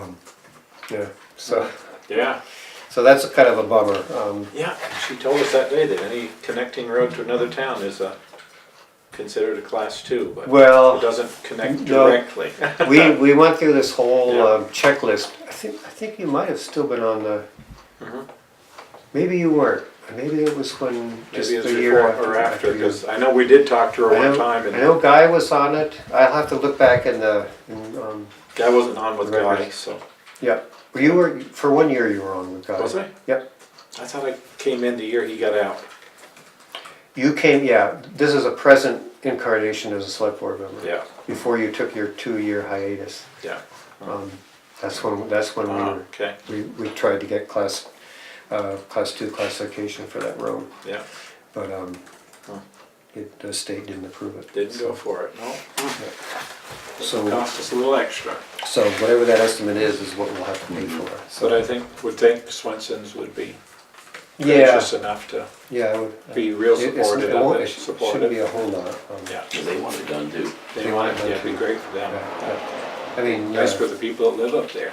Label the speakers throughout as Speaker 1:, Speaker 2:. Speaker 1: Um, yeah, so,
Speaker 2: Yeah,
Speaker 1: so that's kind of a bummer. Um,
Speaker 2: yeah, she told us that day that any connecting road to another town is a, considered a class two, but it
Speaker 1: Well,
Speaker 2: doesn't connect
Speaker 1: No.
Speaker 2: directly.
Speaker 1: we, we went through this whole
Speaker 2: Yeah.
Speaker 1: um, checklist. I think, I think you might have still been on the, Mm-hmm.
Speaker 2: Mhm.
Speaker 1: maybe you weren't. Maybe it was when, just
Speaker 2: Maybe it's
Speaker 1: the year
Speaker 2: before
Speaker 1: after.
Speaker 2: or after,
Speaker 1: you-
Speaker 2: because I know we did talk to her
Speaker 1: I
Speaker 2: one
Speaker 1: know,
Speaker 2: time
Speaker 1: I
Speaker 2: and
Speaker 1: know Guy was on it. I'll have to look back in the, in, um,
Speaker 2: guy wasn't on with
Speaker 1: Right,
Speaker 2: Guy,
Speaker 1: right.
Speaker 2: so.
Speaker 1: yeah. Well, You were, for one year you were on with Guy.
Speaker 2: Was I?
Speaker 1: Yep.
Speaker 2: I thought I came in the year he got out.
Speaker 1: You came, yeah, this is a present incarnation as a select board member.
Speaker 2: Yeah,
Speaker 1: Before you took your two-year hiatus.
Speaker 2: yeah.
Speaker 1: Um, That's when, that's when we
Speaker 2: Ah,
Speaker 1: were
Speaker 2: Okay,
Speaker 1: We, we tried to get class, uh, class two classification for that road,
Speaker 2: yeah.
Speaker 1: but, um,
Speaker 2: Huh.
Speaker 1: it, the state didn't approve it.
Speaker 2: Didn't go for it, no. It
Speaker 1: So,
Speaker 2: Cost us a little extra,
Speaker 1: so whatever that estimate is, is what we'll have to pay for,
Speaker 2: but
Speaker 1: so.
Speaker 2: I think, would think Swenson's would be
Speaker 1: Yeah,
Speaker 2: gracious enough to
Speaker 1: yeah, I would.
Speaker 2: be real
Speaker 1: It- it's-
Speaker 2: supportive
Speaker 1: it won't-
Speaker 2: of it,
Speaker 1: it Shouldn't be
Speaker 2: supportive.
Speaker 1: a whole lot. um,
Speaker 2: Yeah,
Speaker 3: They want it done too.
Speaker 2: they
Speaker 1: They
Speaker 2: want
Speaker 1: want
Speaker 2: it,
Speaker 1: it
Speaker 2: yeah,
Speaker 1: done
Speaker 2: it'd be
Speaker 1: too.
Speaker 2: great for
Speaker 1: yeah,
Speaker 2: them.
Speaker 1: yeah. I mean,
Speaker 2: Nice
Speaker 1: uh,
Speaker 2: for the people that live up there,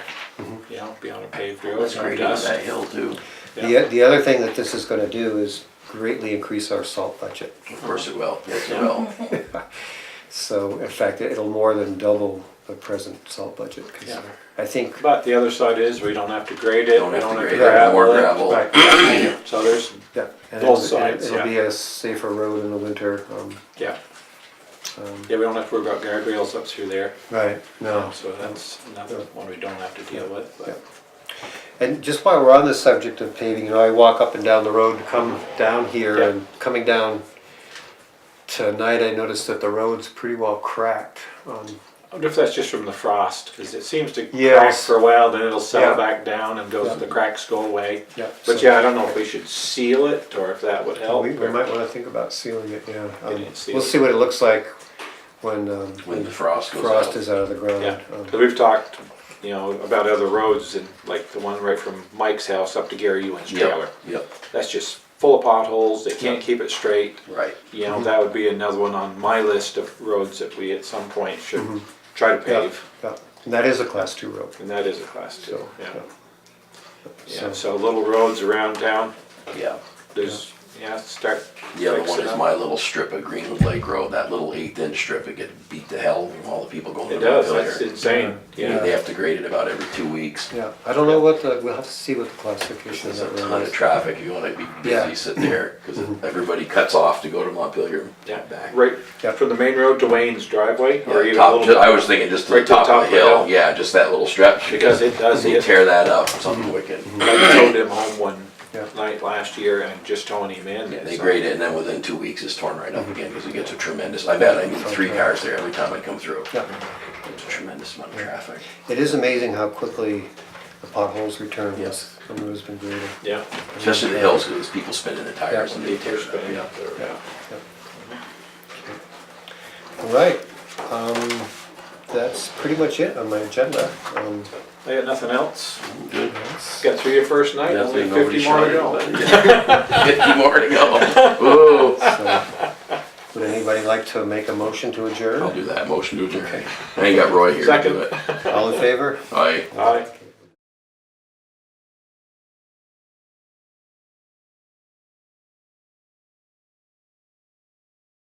Speaker 2: you know, be on a paved road.
Speaker 3: Mm-hmm. That's
Speaker 2: no
Speaker 3: great on
Speaker 2: dust.
Speaker 3: that hill too.
Speaker 2: Yeah.
Speaker 1: the, the other thing that this is gonna do is greatly increase our salt budget.
Speaker 3: Of course it will, yes it will.
Speaker 1: So in fact, it'll more than double the present salt budget, 'cause
Speaker 2: Yeah.
Speaker 1: I think
Speaker 2: But the other side is, we don't have to grade it,
Speaker 3: Don't
Speaker 2: we
Speaker 3: have
Speaker 2: don't
Speaker 3: to
Speaker 2: have to
Speaker 3: grade it, more
Speaker 2: gravel
Speaker 3: gravel.
Speaker 1: Right.
Speaker 2: it, so there's,
Speaker 1: Yeah. and
Speaker 2: Both
Speaker 1: it'll- it'll-
Speaker 2: sides, yeah.
Speaker 1: It'll be a safer road in the winter. um,
Speaker 2: yeah.
Speaker 1: um,
Speaker 2: Yeah, we don't have to worry about guardrails up through there,
Speaker 1: Right, no.
Speaker 2: so that's another one we don't have to deal with, but.
Speaker 1: And just while we're on the subject of paving, you know, I walk up and down the road to come down here
Speaker 2: Yeah.
Speaker 1: and coming down tonight, I noticed that the road's pretty well cracked. um,
Speaker 2: I wonder if that's just from the frost, because it seems to crack
Speaker 1: Yes.
Speaker 2: for a while, then it'll settle
Speaker 1: Yeah.
Speaker 2: back down and goes,
Speaker 1: Yeah.
Speaker 2: the cracks go away.
Speaker 1: Yeah.
Speaker 2: But
Speaker 1: so-
Speaker 2: yeah, I don't know if we should seal it or if that would help.
Speaker 1: We, we
Speaker 2: or-
Speaker 1: might wanna think about sealing it, yeah. Um,
Speaker 2: didn't seal
Speaker 1: We'll
Speaker 2: it.
Speaker 1: see what it looks like when, um,
Speaker 3: When the frost goes
Speaker 1: Frost
Speaker 3: out.
Speaker 1: is out of the
Speaker 2: Yeah,
Speaker 1: ground. um,
Speaker 2: 'cause Uh, we've talked, you know, about other roads and like the one right from Mike's house up to Gary Ewan's trailer.
Speaker 3: Yep, yep,
Speaker 2: That's just full of potholes, they can't keep it straight.
Speaker 3: right.
Speaker 2: You know, that would be another one on my list of roads that we at some point should try to
Speaker 1: yeah,
Speaker 2: pave.
Speaker 1: yeah. And that is a class two road,
Speaker 2: And that is a class two,
Speaker 1: so.
Speaker 2: yeah.
Speaker 1: So-
Speaker 2: Yeah, so little roads around town,
Speaker 3: Yeah.
Speaker 2: there's, yeah, start.
Speaker 3: The other one
Speaker 2: fixing
Speaker 3: is
Speaker 2: up.
Speaker 3: my little strip of Greenwood Lake Road, that little eighth inch strip, it get beat to hell from all the people going to
Speaker 2: It does,
Speaker 3: Montpelier.
Speaker 2: that's insane,
Speaker 3: Yeah,
Speaker 2: yeah.
Speaker 3: They have to grade it about every two weeks.
Speaker 1: Yeah, I don't know what the, we'll have to see what the classification of
Speaker 3: There's a
Speaker 1: that
Speaker 3: ton
Speaker 1: road
Speaker 3: of
Speaker 1: is.
Speaker 3: traffic, you wanna be
Speaker 1: Yeah.
Speaker 3: busy sitting there, cause everybody cuts off to go to Montpelier.
Speaker 2: Mm-hmm. Yeah,
Speaker 3: Back.
Speaker 2: right
Speaker 1: Yeah.
Speaker 2: from the main road to Wayne's driveway or
Speaker 3: Yeah,
Speaker 2: even a
Speaker 3: top-
Speaker 2: little.
Speaker 3: I was thinking just to
Speaker 2: Right
Speaker 3: the top of the hill,
Speaker 2: hill.
Speaker 3: yeah, just that little stretch.
Speaker 2: Because it does Mm-hmm.
Speaker 3: They
Speaker 2: get-
Speaker 3: tear that up, something wicked.
Speaker 2: I towed him home one
Speaker 1: Yeah.
Speaker 2: night last year and just towing him in.
Speaker 3: Yeah, they
Speaker 2: so- Mm-hmm.
Speaker 3: grade it, and then within two weeks, it's torn right up again because it gets a tremendous. I bet I need three cars there every time I come through.
Speaker 1: Yeah.
Speaker 3: It's a tremendous amount of traffic.
Speaker 1: It is amazing how quickly the potholes return
Speaker 3: Yes.
Speaker 1: once the road's been graded.
Speaker 2: Yeah,
Speaker 3: Especially the hills, because people spinning the tires and they
Speaker 2: they
Speaker 3: tear
Speaker 2: tear
Speaker 3: it up.
Speaker 2: spinning up there, yeah.
Speaker 1: All right, um, that's pretty much it on my agenda. Um,
Speaker 2: I got nothing else.
Speaker 3: Good.
Speaker 1: that's-
Speaker 2: Got through your first night, only
Speaker 3: Definitely nobody
Speaker 2: fifty more to
Speaker 3: shot
Speaker 2: go.
Speaker 3: anybody. Fifty more to go. Whoa.
Speaker 1: so, Would anybody like to make a motion to
Speaker 3: I'll
Speaker 1: adjourn?
Speaker 3: do that. Motion to adjourn. I ain't got Roy here to do
Speaker 2: Second.
Speaker 3: it.
Speaker 1: All in favor?
Speaker 3: Aye.
Speaker 2: Aye.